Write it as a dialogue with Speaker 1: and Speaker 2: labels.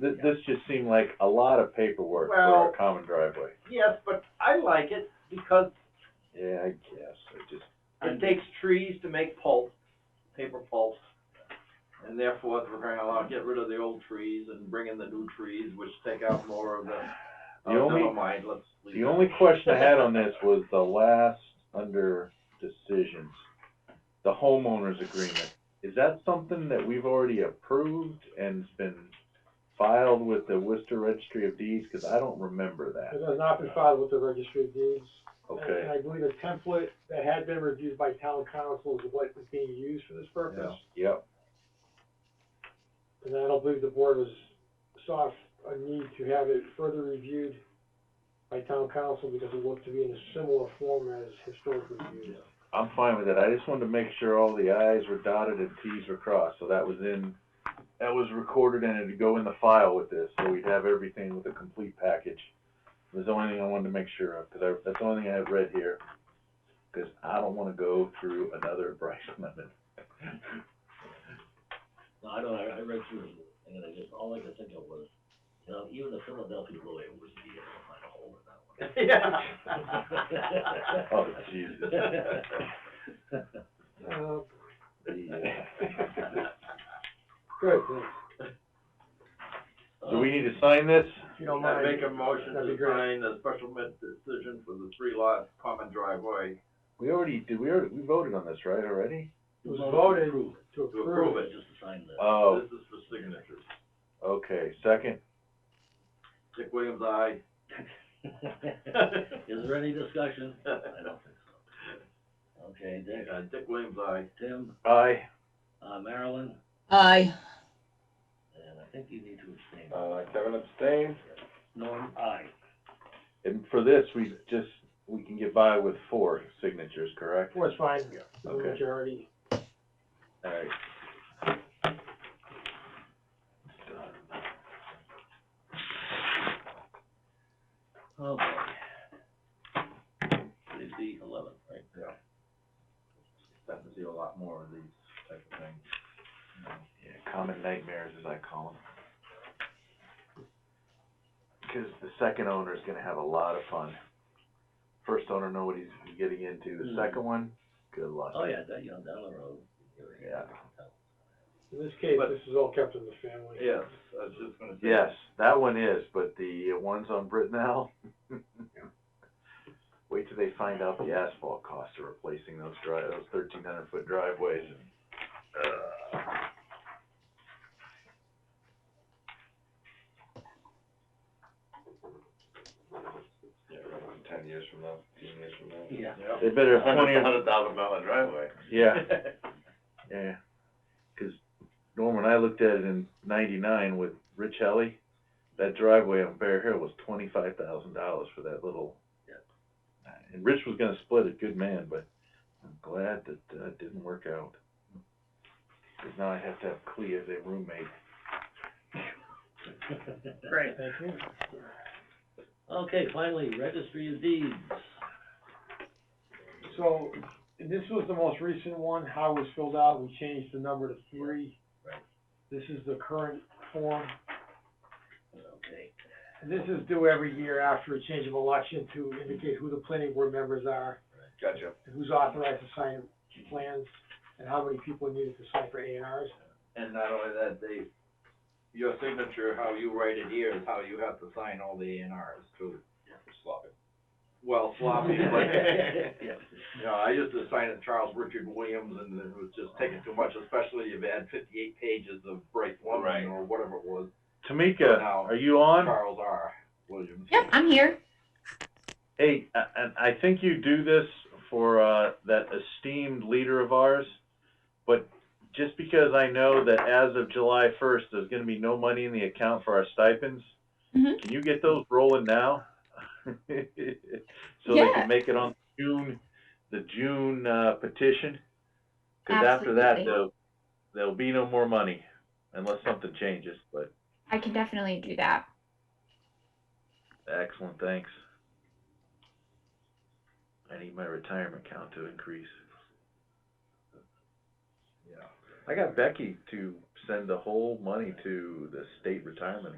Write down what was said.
Speaker 1: This, this just seemed like a lot of paperwork for
Speaker 2: Well-
Speaker 1: a common driveway.
Speaker 2: Yes, but I like it because
Speaker 1: Yeah, I guess, I just,
Speaker 2: it takes trees to make pulp, paper pulp. And therefore, we're going to allow, get rid of the old trees and bring in the new trees, which take out more of the,
Speaker 1: The
Speaker 2: oh,
Speaker 1: only-
Speaker 2: never mind, let's leave
Speaker 1: the
Speaker 2: that.
Speaker 1: only question I had on this was the last under decisions, the homeowners agreement. Is that something that we've already approved and's been filed with the Worcester Registry of Deeds? Cause I don't remember
Speaker 3: It
Speaker 1: that,
Speaker 3: has not been filed with the registry of deeds. And- And
Speaker 1: okay?
Speaker 3: I believe a template that had been reviewed by town council is what was being used for this purpose.
Speaker 1: Yep,
Speaker 3: And I don't believe the board was, saw a need to have it further reviewed by town council because it looked to be in a similar form as historic reviews.
Speaker 1: I'm fine with that. I just wanted to make sure all the i's were dotted and t's were crossed, so that was in, that was recorded and it'd go in the file with this, so we'd have everything with a complete package. Was the only thing I wanted to make sure of, cause I, that's the only thing I had read here, cause I don't wanna go through another Bryce Lemon.
Speaker 4: No, I don't, I, I read through it, and then I just, all I could think of was, you know, even the Philadelphia lawyer was needed to find a hole in that one.
Speaker 2: Yeah.
Speaker 1: Oh, Jesus.
Speaker 3: Uh,
Speaker 1: Yeah.
Speaker 3: good,
Speaker 1: Do we need to sign this?
Speaker 3: if you don't
Speaker 2: I
Speaker 3: mind.
Speaker 2: make a motion
Speaker 3: That'd be
Speaker 2: to
Speaker 3: great.
Speaker 2: sign a special permit decision for the three lot common driveway
Speaker 1: We already, did we already, we voted on this, right, already?
Speaker 3: It was voted
Speaker 4: Approve it,
Speaker 3: to
Speaker 2: to
Speaker 3: approve
Speaker 2: approve
Speaker 3: it.
Speaker 2: it.
Speaker 4: Just to sign the,
Speaker 1: Oh,
Speaker 2: This is for signatures.
Speaker 1: okay, second,
Speaker 2: Dick Williams, aye.
Speaker 4: is there any discussion? I don't think so. Okay, Dick,
Speaker 2: Uh, Dick Williams, aye.
Speaker 4: Tim,
Speaker 1: aye.
Speaker 4: uh, Marilyn,
Speaker 5: Aye.
Speaker 4: and I think you need to abstain.
Speaker 1: Uh, Kevin abstained.
Speaker 4: Norm, aye.
Speaker 1: And for this, we just, we can get by with four signatures, correct?
Speaker 3: Well, it's fine, the
Speaker 1: Okay.
Speaker 3: majority.
Speaker 1: Alright.
Speaker 4: Oh, boy. Today's the eleventh, right?
Speaker 2: Starting to see a lot more of these type of things.
Speaker 1: Yeah, common nightmares as I call them. Cause the second owner's gonna have a lot of fun. First owner know what he's getting into, the
Speaker 4: Hmm.
Speaker 1: second one, good luck.
Speaker 4: Oh, yeah, that, you know, down the road. you're-
Speaker 1: Yeah.
Speaker 3: In this case,
Speaker 2: But-
Speaker 3: this is all kept in the family.
Speaker 2: Yes, I was just gonna say.
Speaker 1: Yes, that one is, but the ones on Britnell. Wait till they find out the asphalt cost of replacing those dri- those thirteen hundred foot driveways and. Yeah, ten years from now, fifteen years from now.
Speaker 4: Yeah.
Speaker 1: They better have twenty,
Speaker 2: Hundred thousand dollar driveway.
Speaker 1: yeah, yeah, cause Norm, when I looked at it in ninety-nine with Rich Helly, that driveway on Bear Hill was twenty-five thousand dollars for that little.
Speaker 4: Yeah.
Speaker 1: And Rich was gonna split it, good man, but I'm glad that, uh, it didn't work out. Cause now I have to have Clea as a roommate.
Speaker 4: Great.
Speaker 3: Thank you.
Speaker 4: Okay, finally, registry of deeds.
Speaker 3: So, this was the most recent one, how it was filled out, we changed the number to three.
Speaker 4: Right.
Speaker 3: This is the current form,
Speaker 4: Okay,
Speaker 3: and this is due every year after a change of election to indicate who the planning board members are,
Speaker 2: Gotcha.
Speaker 3: and who's authorized to sign plans, and how many people are needed to sign for A and Rs.
Speaker 2: And not only that, they, your signature, how you write it here is how you have to sign all the A and Rs too. Sloppy. Well, sloppy, but,
Speaker 4: Yeah.
Speaker 2: you know, I used to sign it Charles Richard Williams and it was just taking too much, especially if you had fifty-eight pages of Bryce
Speaker 4: Right.
Speaker 2: Lemon or whatever it was.
Speaker 1: Tamika,
Speaker 2: Now-
Speaker 1: are you on?
Speaker 2: Charles R. Williams.
Speaker 5: Yep, I'm here.
Speaker 1: Hey, a- and I think you do this for, uh, that esteemed leader of ours, but just because I know that as of July first, there's gonna be no money in the account for our stipends,
Speaker 5: Mhm.
Speaker 1: Can you get those rolling now? So they
Speaker 5: Yeah.
Speaker 1: can make it on June, the June uh, petition? Cause after that,
Speaker 5: Absolutely.
Speaker 1: there'll, there'll be no more money unless something changes, but
Speaker 5: I can definitely do that.
Speaker 1: excellent, thanks. I need my retirement account to increase.
Speaker 2: Yeah.
Speaker 1: I got Becky to send the whole money to the state retirement